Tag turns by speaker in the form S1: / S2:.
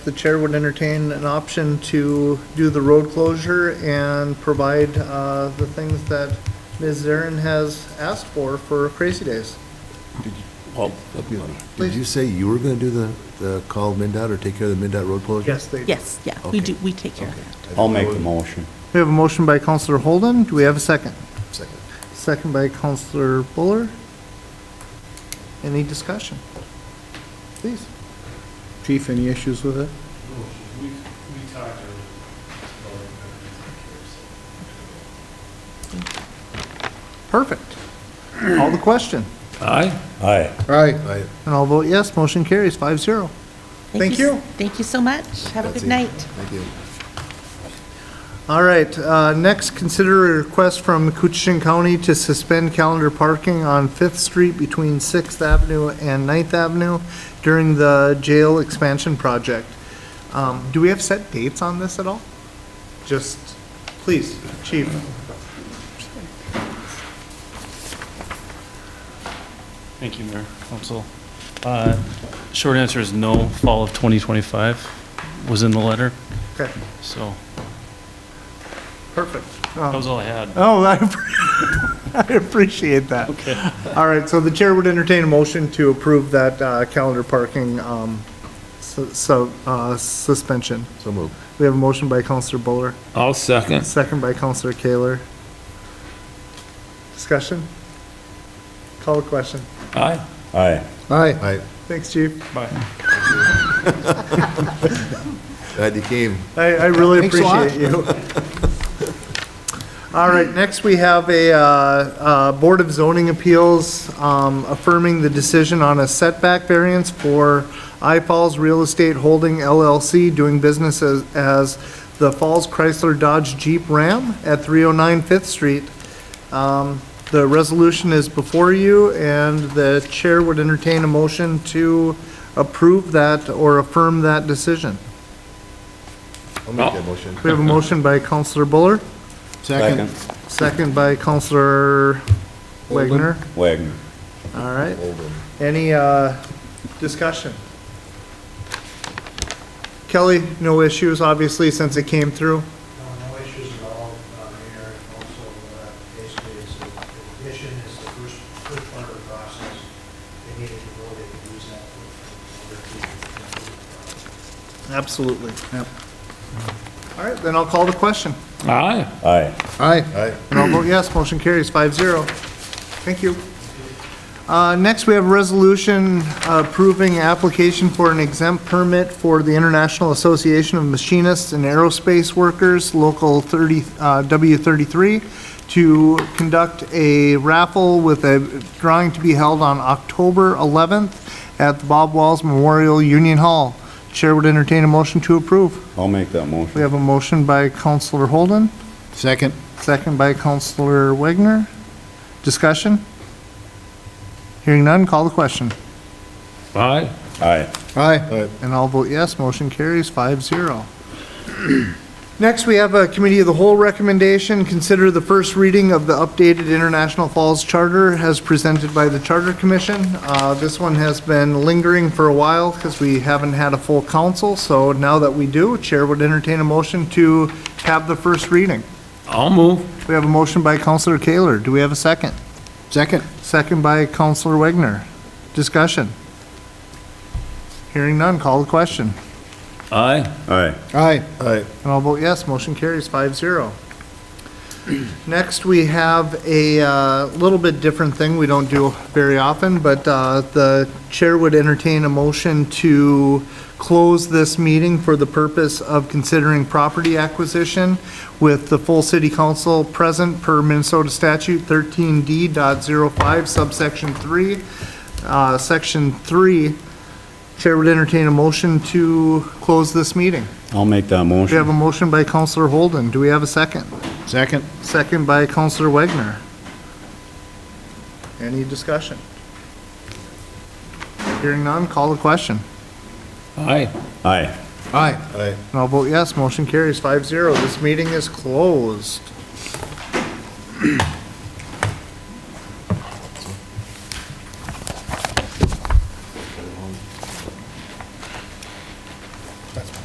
S1: The chair would entertain an option to do the road closure and provide uh, the things that Ms. Zarin has asked for for Crazy Days.
S2: Well,
S1: Please.
S3: Did you say you were going to do the, the call MinDOT or take care of the MinDOT road closure?
S1: Yes, they
S4: Yes, yeah,
S3: Okay.
S4: we do, we take care of that.
S2: I'll make the motion.
S1: We have a motion by Counselor Holden. Do we have a second?
S3: Second.
S1: Second by Counselor Buller. Any discussion? Please.
S5: Chief, any issues with it?
S6: We, we talked earlier.
S1: Perfect. All the question.
S6: Aye.
S2: Aye.
S5: Right.
S3: I,
S1: And I'll vote yes. Motion carries five zero. Thank
S4: s-
S1: you.
S4: Thank you so much. Have a
S3: That's
S4: good
S3: it.
S4: night.
S3: thank you.
S1: All right, uh, next, consider a request from Coochin County to suspend calendar parking on Fifth Street between Sixth Avenue and Ninth Avenue during the jail expansion project. Um, do we have set dates on this at all? Just, please, chief.
S6: Thank you, Mayor, Council. Uh, Short answer is no, fall of 2025 was in the letter,
S1: Okay,
S6: so
S1: perfect.
S6: that was all I had.
S1: Oh, I, I appreciate that.
S6: Okay.
S1: All right, so the chair would entertain a motion to approve that, uh, calendar parking, um, so, so, uh, suspension.
S3: So moved.
S1: We have a motion by Counselor Buller,
S7: I'll second.
S1: second by Counselor Kaler. Discussion? Call the question.
S7: Aye.
S2: Aye.
S1: Aye.
S3: I,
S1: Thanks, Chief.
S6: Bye.
S3: glad you came.
S1: I, I really
S3: Thanks a lot.
S1: appreciate you. All right, next we have a, uh, uh, Board of Zoning Appeals, um, affirming the decision on a setback variance for I Falls Real Estate Holding LLC, doing business as, as the Falls Chrysler Dodge Jeep Ram at 309 Fifth Street. Um, the resolution is before you, and the chair would entertain a motion to approve that or affirm that decision.
S3: I'll make that motion.
S1: We have a motion by Counselor Buller,
S2: Second.
S1: second by Counselor Wagner.
S2: Wagner.
S1: All right,
S3: Over.
S1: any, uh, discussion? Kelly, no issues, obviously, since it came through.
S8: No, no issues at all uh, here, and also, uh, basically, it's, a- the addition is the first, first part of the process. They needed to go, they could use that for, for their, for their,
S1: Absolutely. Yep. All right, then I'll call the question.
S7: Aye.
S2: Aye.
S5: Aye.
S3: Aye.
S1: And I'll vote yes, motion carries five zero. Thank you. Uh, Next, we have a resolution approving application for an exempt permit for the International Association of Machinists and Aerospace Workers, Local 30, uh, W33, to conduct a raffle with a drawing to be held on October 11th at the Bob Walls Memorial Union Hall. Chair would entertain a motion to approve.
S2: I'll make that motion.
S1: We have a motion by Counselor Holden.
S5: Second.
S1: Second by Counselor Wagner. Discussion? Hearing none, call the question.
S7: Aye.
S2: Aye.
S5: Aye.
S3: Aye.
S1: And I'll vote yes, motion carries five zero. Next, we have a committee of the whole recommendation, consider the first reading of the updated International Falls Charter as presented by the Charter Commission. Uh, This one has been lingering for a while because we haven't had a full council, so now that we do, Chair would entertain a motion to have the first reading.
S7: I'll move.
S1: We have a motion by Counselor Kaler. Do we have a second?
S5: Second.
S1: Second by Counselor Wagner. Discussion. Hearing none, call the question.
S7: Aye.
S2: Aye.
S5: Aye.
S3: Aye.
S1: And I'll vote yes, motion carries five zero. Next, we have a uh, little bit different thing we don't do very often, but uh, the chair would entertain a motion to close this meeting for the purpose of considering property acquisition with the full city council present per Minnesota statute 13D.05 subsection 3. Uh, Section 3, chair would entertain a motion to close this meeting.
S2: I'll make that
S1: We have
S2: motion.
S1: a motion by Counselor Holden. Do we have a second?
S5: Second.
S1: Second by Counselor Wagner. Any discussion? Hearing none, call the question.
S7: Aye.
S2: Aye.
S5: Aye.
S3: Aye.
S1: And I'll vote yes, motion carries five zero. This meeting is closed.